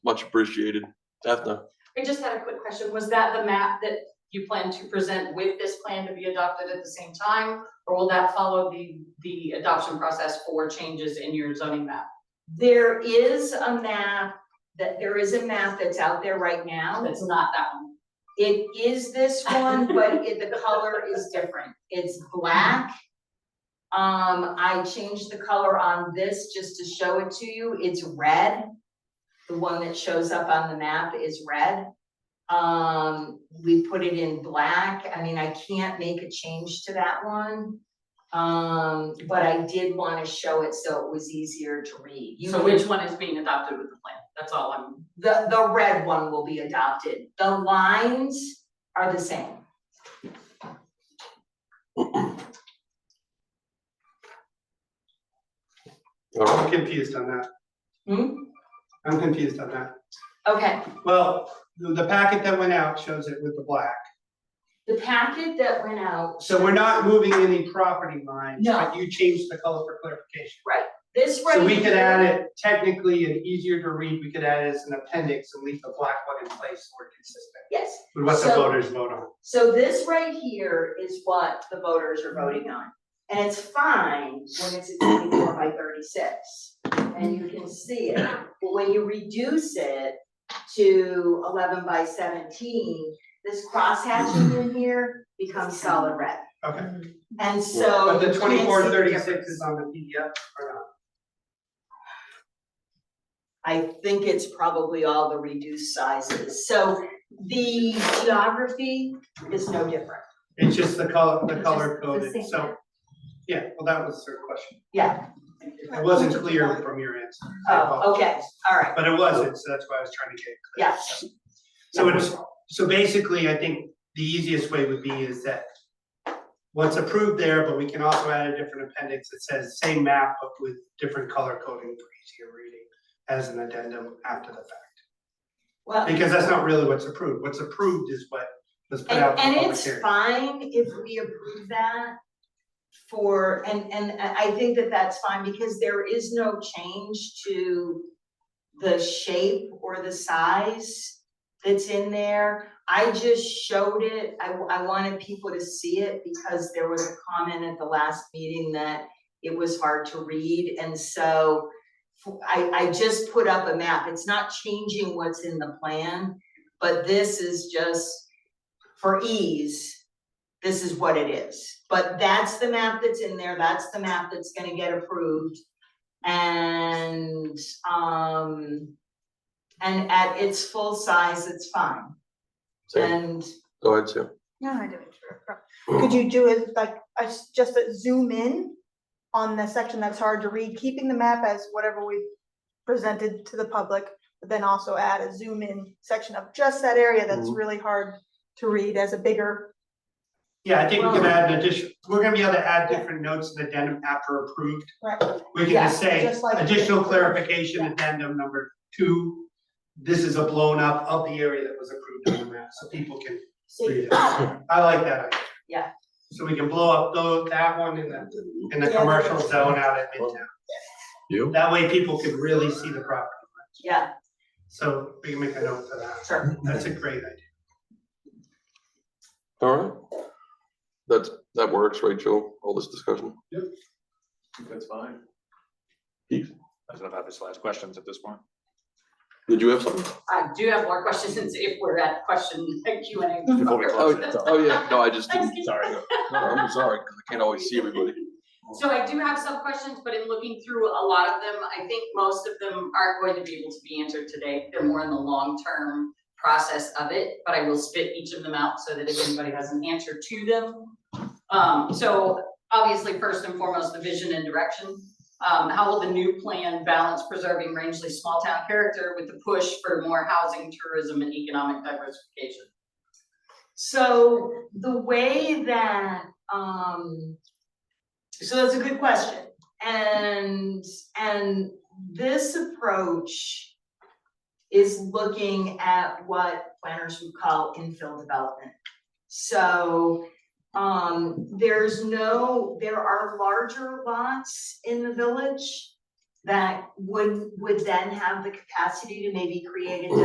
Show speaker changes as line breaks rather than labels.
much appreciated. Ethna,
I just had a quick question. Was that the map that you plan to present with this plan to be adopted at the same time? Or will that follow the, the adoption process for changes in your zoning map?
There is a map, that there is a map that's out there right now.
That's not that one.
It is this one, but it, the color is different. It's black. Um, I changed the color on this just to show it to you. It's red. The one that shows up on the map is red. Um, we put it in black. I mean, I can't make a change to that one. Um, but I did wanna show it so it was easier to read. You
So
can-
which one is being adopted with the plan? That's all I'm,
the, the red one will be adopted. The lines are the same.
all right,
I'm confused on that.
Hmm?
I'm confused on that.
Okay,
Well, the the packet that went out shows it with the black.
the packet that went out,
So we're not moving any property lines,
No.
but you changed the color for clarification.
this right
So we could add
here-
it technically and easier to read, we could add it as an appendix and leave the black one in place so we're consistent
Yes,
with what the
So-
voters vote on.
so this right here is what the voters are voting on. And it's fine when it's a twenty-four by thirty-six, and you can see it. But when you reduce it to eleven by seventeen, this crosshatching in here becomes solid red.
Okay.
And so.
But
Oh, you
the
can't
twenty-four
see the
thirty-six
difference.
is on the PDF or not?
I think it's probably all the reduced sizes, so the geography is no different.
It's just the color, the color
It's just the
coded,
same.
so. Yeah, well, that was her question.
Yeah,
It wasn't clear from your answer. I
oh, okay, all right,
But it wasn't, so that's why I was trying to get. it clear.
yes.
So it's, so basically, I think the easiest way would be is that what's approved there, but we can also add a different appendix that says same map, but with different color coding for easier reading as an addendum after the fact.
Well, and,
Because that's not really what's approved. What's approved is what was put out for
and
public
it's
hearing.
fine if we approve that for, and, and I I think that that's fine, because there is no change to the shape or the size that's in there. I just showed it, I, I wanted people to see it because there was a comment at the last meeting that it was hard to read, and so f- I, I just put up a map, it's not changing what's in the plan, but this is just for ease, this is what it is. But that's the map that's in there, that's the map that's gonna get approved. And, um, and at its full size, it's fine.
Sam,
And
go ahead, Sam.
No, I didn't. Could you do it like, a s- just a zoom in on the section that's hard to read, keeping the map as whatever we presented to the public, but then also add a zoom in section of just that area that's
Mhm.
really hard to read as a bigger,
Yeah, I think we can
Well-
add an addition, we're gonna be able to add
Yeah.
different notes and addendum after approved.
right?
We can
Yeah,
just say
just like-
additional clarification
Yeah.
addendum number two. This is a blown up of the area that was approved on the map, so people can read it. I like that idea.
Yeah.
So we can blow up those, that one in the, in the
Yeah.
commercial zone out at Midtown.
You?
That way people can really see the property.
yeah,
So we can make a note for that.
sure.
That's a great idea.
All right. That's, that works, Rachel, all this discussion.
That's fine.
Keith?
I don't have his last questions at this point.
Did you have something?
I do have more questions if we're at question Q and A.
Before we
Oh,
close it,
oh, yeah, no, I just didn't,
sorry.
no, I'm sorry, 'cause I can't always see everybody.
So I do have some questions, but in looking through a lot of them, I think most of them aren't going to be able to be answered today. They're more in the long-term process of it, but I will spit each of them out so that if anybody has an answer to them. Um, so obviously, first and foremost, the vision and direction. Um, how will the new plan balance preserving Rangeley's small-town character with the push for more housing, tourism, and economic diversification?
So the way that, um, so that's a good question. And, and this approach is looking at what planners would call infill development. So, um, there's no, there are larger lots in the village that would, would then have the capacity to maybe create a